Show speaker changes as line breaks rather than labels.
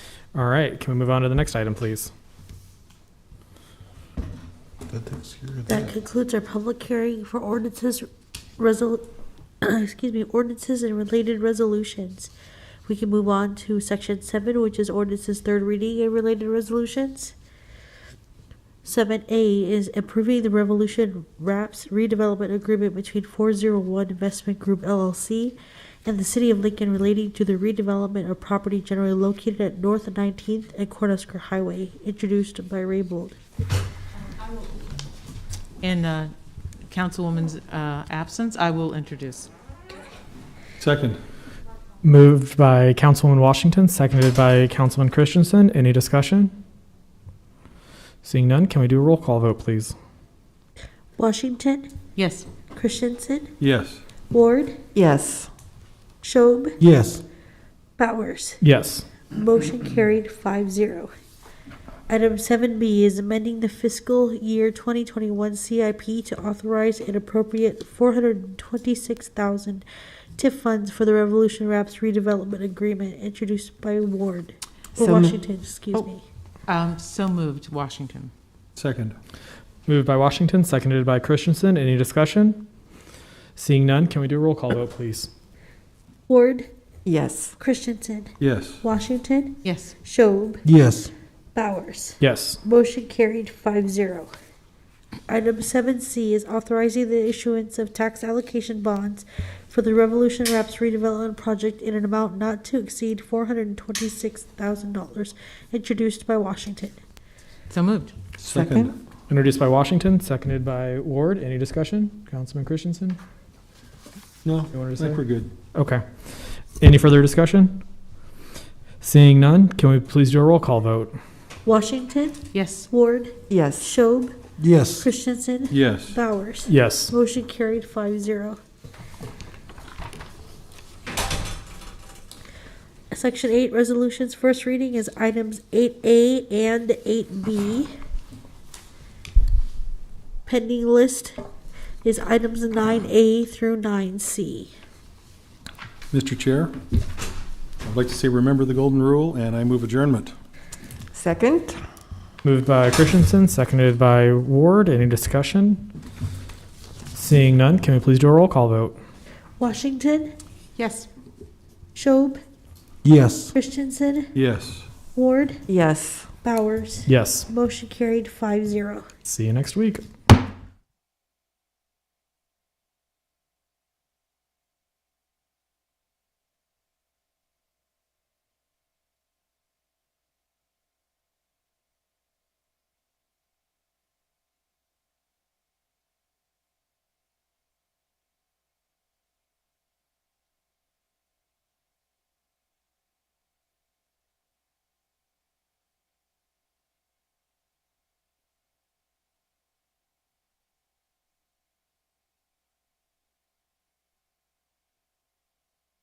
All right, can we move on to the next item, please?
That takes care of
That concludes our public hearing for ordinances, resol, excuse me, ordinances and related resolutions. We can move on to section seven, which is ordinances third reading and related resolutions. Seven A is approving the Revolution Wraps redevelopment agreement between four zero one Investment Group LLC and the City of Lincoln relating to the redevelopment of property generally located at North Nineteenth and Cornhusker Highway, introduced by Raybold.
In uh, Councilwoman's uh, absence, I will introduce.
Second.
Moved by Councilman Washington, seconded by Councilman Christensen. Any discussion? Seeing none, can we do a roll call vote, please?
Washington,
Yes.
Christensen,
Yes.
Ward,
yes,
Schob,
Yes.
Bowers.
Yes.
Motion carried 5-0. Item seven B is amending the fiscal year twenty twenty-one CIP to authorize and appropriate four hundred and twenty-six thousand TIF funds for the Revolution Wraps redevelopment agreement introduced by Ward, or
So mo-
Washington, excuse
Oh.
me.
Um, So moved, Washington.
Second.
Moved by Washington, seconded by Christensen. Any discussion? Seeing none, can we do a roll call vote, please?
Ward,
yes,
Christensen,
Yes.
Washington,
Yes.
Schob,
Yes.
Bowers.
Yes.
Motion carried 5-0. Item seven C is authorizing the issuance of tax allocation bonds for the Revolution Wraps redevelopment project in an amount not to exceed four hundred and twenty-six thousand dollars, introduced by Washington.
So moved.
Second.
Introduced by Washington, seconded by Ward. Any discussion? Councilman Christensen?
No,
You wanted
I
to say?
think we're good.
Okay. Any further discussion? Seeing none, can we please do a roll call vote?
Washington,
Yes.
Ward,
yes,
Schob,
Yes.
Christensen,
Yes.
Bowers.
Yes.
Motion carried 5-0. Section eight, resolutions, first reading is items eight A and eight B. Pending list is items nine A through nine C.
Mr. Chair, I'd like to say remember the golden rule, and I move adjournment.
second,
Moved by Christensen, seconded by Ward. Any discussion? Seeing none, can we please do a roll call vote?
Washington,
Yes.
Schob,
Yes.
Christensen,
Yes.
Ward,
yes.
Bowers.
Yes.
Motion carried 5-0.
See you next week.